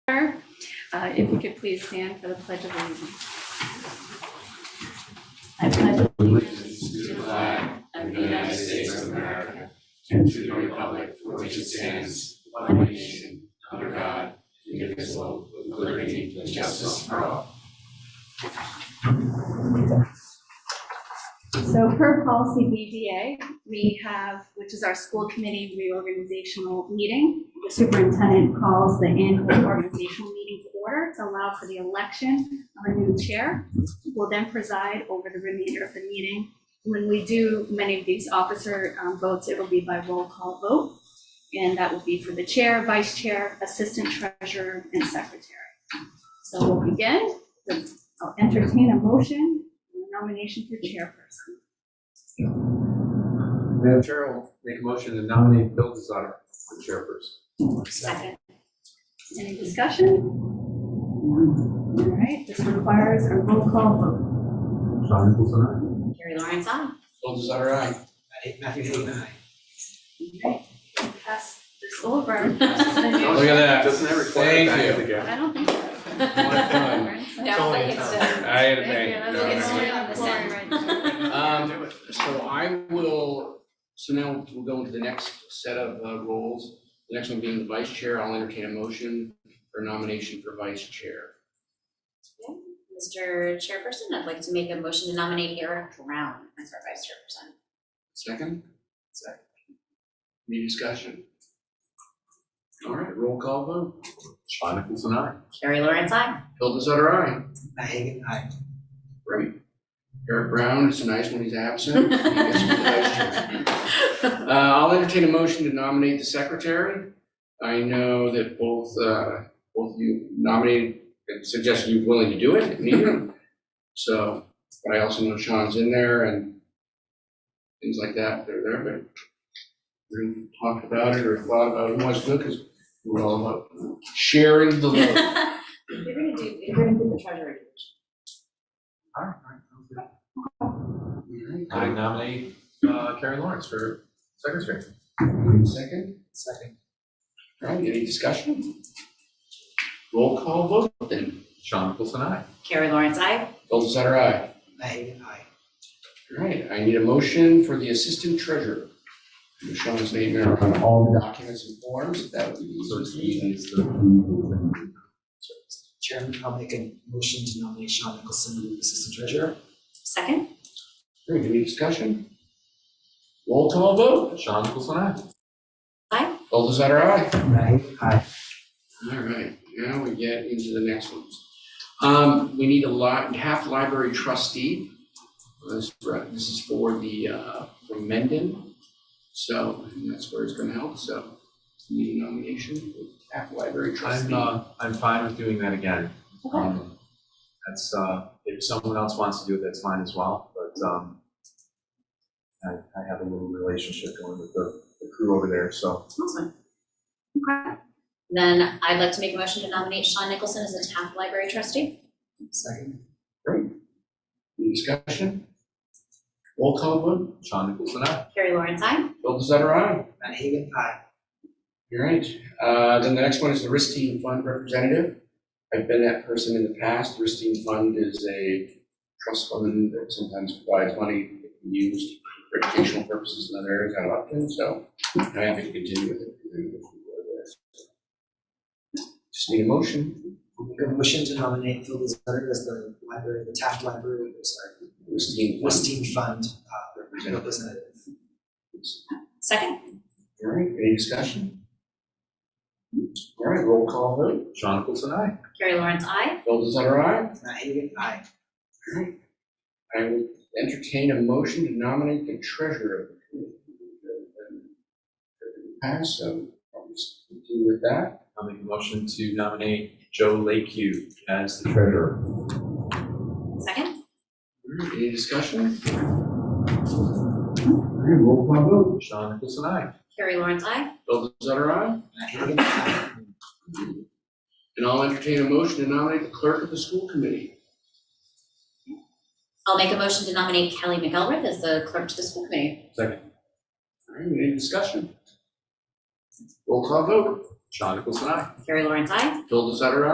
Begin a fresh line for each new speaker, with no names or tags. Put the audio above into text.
Uh, If you could please stand for the Pledge of Allegiance. I pledge allegiance to the flag of the United States of America
and to the republic for which it stands, one nation, under God, indivisible, with liberty and justice for all.
So per policy BDA, we have, which is our school committee reorganizational meeting. The superintendent calls the annual organizational meeting to order to allow for the election of a new chair. who Will then preside over the remainder of the meeting. When we do many of these officer um, votes, it'll be by roll call vote. And that will be for the chair, vice chair, assistant treasurer, and secretary. So we'll begin. I'll entertain a motion, nomination for chairperson.
Madam Chair, I'll make a motion to nominate Bill Designer for chairperson.
Second. Any discussion? All right, this requires a roll call vote.
John Nicholson, aye.
Carrie Lawrence, aye.
Full desire, aye. Matthew Hayden, aye.
All right, Pass this over.
Look at that.
Doesn't that require a
Thank
bang
you.
of the gavel?
I don't think so.
No, I think it's, uh,
I had a
Yeah, that's
bang. No,
okay.
it's
no,
only on the side.
no. Um,
So I will, so now we'll go into the next set of uh, roles. The next one being the vice chair. I'll entertain a motion for nomination for vice chair.
Mr. Chairperson, I'd like to make a motion to nominate Eric Brown as our vice chairperson.
Second? Second. Any discussion? All right, roll call vote.
John Nicholson, aye.
Carrie Lawrence, aye.
Phil Disarara, aye.
Matt Hagan, aye.
Right. Eric Brown, it's nice when he's absent. He gets to be the vice chair. Uh, I'll entertain a motion to nominate the secretary. I know that both, uh, both you nominated and suggested you're willing to do it, if needed. So, but I also know Sean's in there and things like that, they're there, but we talked about it or thought about it, it was good, because we're all about sharing the load.
You're gonna do, you're gonna do the treasurer.
All right, all right,
All
sounds good. I
right,
nominate uh, Carrie Lawrence for secretary.
Second,
Second.
all right, any discussion? Roll call vote then.
John Nicholson, aye.
Carrie Lawrence, aye.
Golden Center, aye. All right, I need a motion for the assistant treasurer. Michelle's name there on all the documents and forms, that would be the easiest. reason.
Chairman, I'll make a motion to nominate Sean Nicholson as Assistant Treasurer.
Second,
Great, any discussion? Roll call vote.
John Nicholson, aye.
Golden Center, aye.
Right. Aye.
All right, now we get into the next ones. Um, we need a lot, half library trustee. Uh, This, this is for the, uh, for Mendon. So, and that's where it's gonna help, so need a nomination for half library
I'm,
trustee.
uh, I'm fine with doing that again. Um, That's, uh, if someone else wants to do it, that's fine as well, but, um, I, I have a little relationship going with the, the crew over there, so.
awesome. Okay. Then I'd like to make a motion to nominate Sean Nicholson as the Taft Library trustee.
Second.
Any discussion? Roll call vote,
Sean Nicholson, aye.
Carrie Lawrence, aye.
Bill Desotter, aye.
Matt Hagan, aye.
All right, uh, then the next one is the Risk Team Fund representative. I've been that person in the past. The Risk Team Fund is a trust fund that sometimes provides money used for educational purposes in other areas out of Upton, so I'm happy to continue with it. Just need a motion.
I'll make a motion to nominate Phil Desutter as the library, the Taft Library, I'm sorry,
Risk Team Fund
Westeen Fund uh,
representative.
representative.
Second,
All right, any discussion? All right, roll call vote.
Sean Nicholson, aye.
Carrie Lawrence, aye.
Bill Desotter, aye.
Matt Hagan, aye.
I will entertain a motion to nominate the treasurer of the committee. Pass, so I'll just continue with that.
I'll make a motion to nominate Joe Lakeview as the treasurer.
Second,
Any discussion? All right, roll call vote.
Sean Nicholson, aye.
Carrie Lawrence, aye.
Bill Zutter, aye.
Matt Hagan, aye.
And I'll entertain a motion to nominate the clerk of the school committee.
I'll make a motion to nominate Kelly McElrath as the clerk to the school committee.
All right, any discussion? Roll call vote.
Sean Nicholson, aye.
Carrie Lawrence, aye.
Bill Zutter,